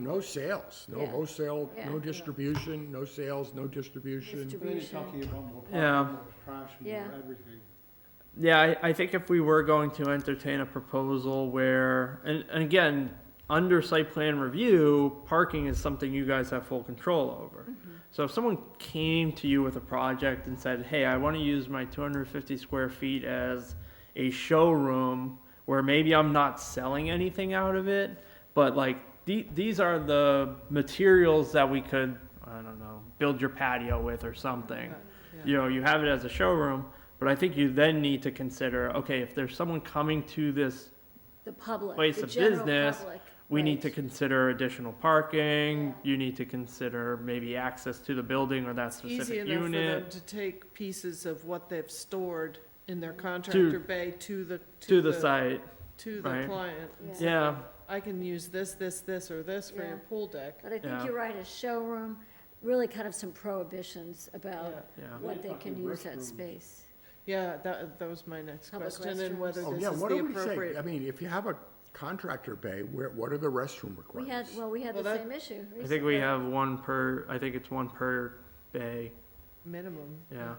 No sales, no, Yeah. no sale, Yeah. no distribution, no sales, no distribution. Distribu- Then you're talking about more Yeah. parking, more trash, Yeah. more everything. Yeah, I, I think if we were going to entertain a proposal where, and, and again, under site plan review, parking is something you guys have full control over. So if someone came to you with a project and said, hey, I want to use my 250 square feet as a showroom where maybe I'm not selling anything out of it, but like the, these are the materials that we could, I don't know, build your patio with or something. You know, you have it as a showroom, but I think you then need to consider, okay, if there's someone coming to this, The public, Place the of general business, public. we need right. to consider additional parking. Yeah. You need to consider maybe access to the building or that Easy specific enough for them unit. to take pieces of what they've stored in their contractor bay to the. To the site, To the right. client. and Yeah. say, yeah, I can use this, this, this, or this for Yeah. your pool deck. But I think Yeah. you're right, a showroom, really kind of some prohibitions about Yeah. yeah. what they can use that Restrooms. space. Yeah, that, that was my next Public question, and whether Oh, this yeah, is what the do we say? I appropriate. mean, if you have a contractor bay, where, what are the restroom We had, requirements? well, we had the Well, that- same issue recently. I think we have one per, I think it's one per bay, Minimum. yeah.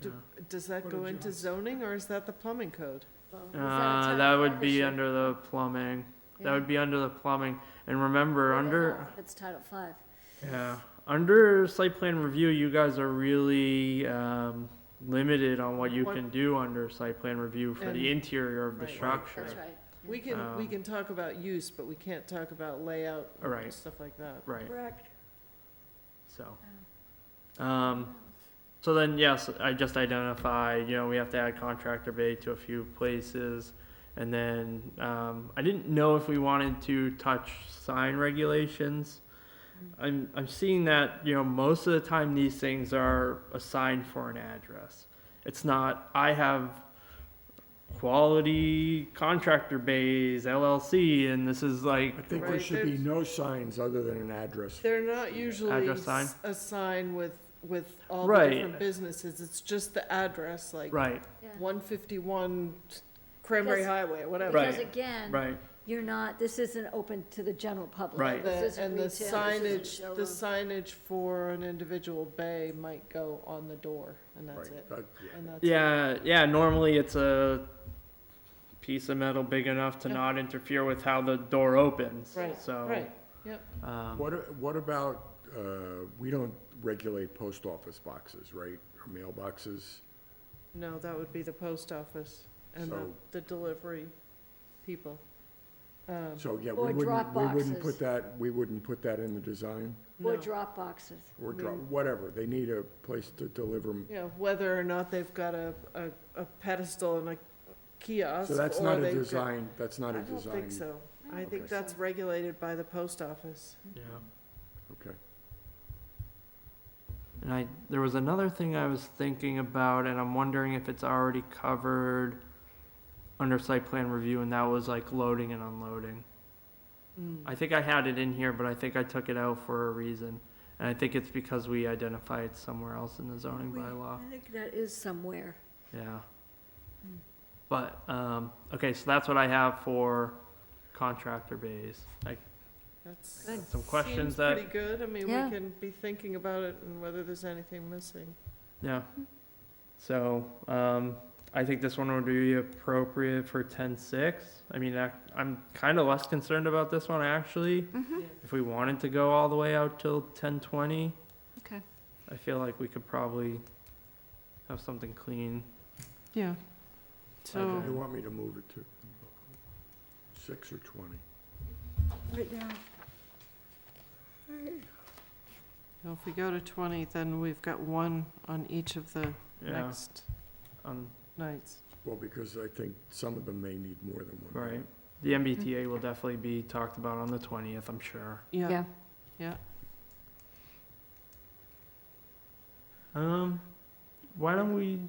Do- Does that What go did you into have? zoning, or is that the plumbing code? Well, was that a Uh, town that farm would be issue? under the plumbing, that Yeah. would be under the plumbing. And remember, Well, under. no, It's Title Five. Yeah, under site plan review, you guys are really, um, limited on what you What- can do under site plan review for And- the interior of the Right. structure. That's right. We can, we Um, can talk about use, but we can't talk about layout and Right. stuff like that. Right, Correct. so, um, so then, yes, I just identify, you know, we have to add contractor bay to a few places. And then, um, I didn't know if we wanted to touch sign regulations. I'm, I'm seeing that, you know, most of the time these things are assigned for an address. It's not, I have quality contractor bays LLC and this is like, I think there Right, should be there's- no signs other than an address. They're not usually Address sign? s- a sign with, with all the Right. different businesses, it's just the address, like right, Yeah. one fifty-one Cranberry Because- Highway, whatever. Right. Because again, right, you're not, this isn't open to the general public. Right. The- This isn't And retail, the this isn't signage, the showroom. signage for an individual bay might go on the door, and that's Right, it. that- yeah. And that's it. Yeah, yeah. Normally, it's a piece of metal big enough to Yeah. not interfere with how the door opens. Right, So, Right, um, What, a- what about, uh, we don't regulate post office boxes, right, or mailboxes? no, that would be the post office and the, So- the delivery people. Um, So, yeah, Or we wouldn't, drop we wouldn't boxes. put that, we wouldn't put that in the design, Or no. drop boxes. or I drop, mean- whatever, they need a place to deliver. 'em. you know, whether or not they've got a, a, a pedestal and a kiosk. So that's or not a they've got- design, that's not a I don't design, think so. I Okay. think that's regulated by the post office. yeah. okay. And I there was another thing I was thinking about, and I'm wondering if it's already covered under site plan review, and that was like loading and unloading. Mm. I think I had it in here, but I think I took it out for a reason, and I think it's because we identify it somewhere else in the zoning We- bylaw. I think that is somewhere. Yeah. But, um, okay, so that's what I have for contractor bays. Like, That's- Good. Some questions seems that- Pretty good. I mean, Yeah. we can be thinking about it and whether there's anything missing. yeah. So, um, I think this one would be appropriate for ten-six. I mean, I, I'm kinda less concerned about this one, actually. Yeah. If we wanted to go all the way out till ten-twenty. Okay. I feel like we could probably have something clean. Yeah. So- You want me to move it to six or twenty? Right now. If we go to twenty, then we've got one on each of the Yeah, next um, nights. Well, because I think some of them may need more than one. right. The MBTA will definitely be talked about on the twentieth, I'm sure. Yeah, Um, why don't we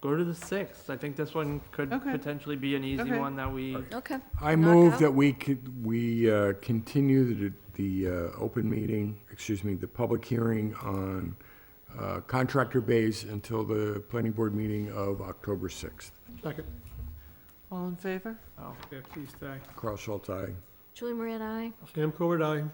go to the sixth? I think this one could Okay. potentially be an easy Okay. one that we, Alright. Okay. I Knock move out? that we could, we uh, continue the, the uh, open meeting, excuse me, the public hearing on uh, contractor base until the planning board meeting of October 6th. Second, all in favor? oh, yeah, please stay. Carl Schultz, aye. Julie Moran, aye. Sam Covert, aye.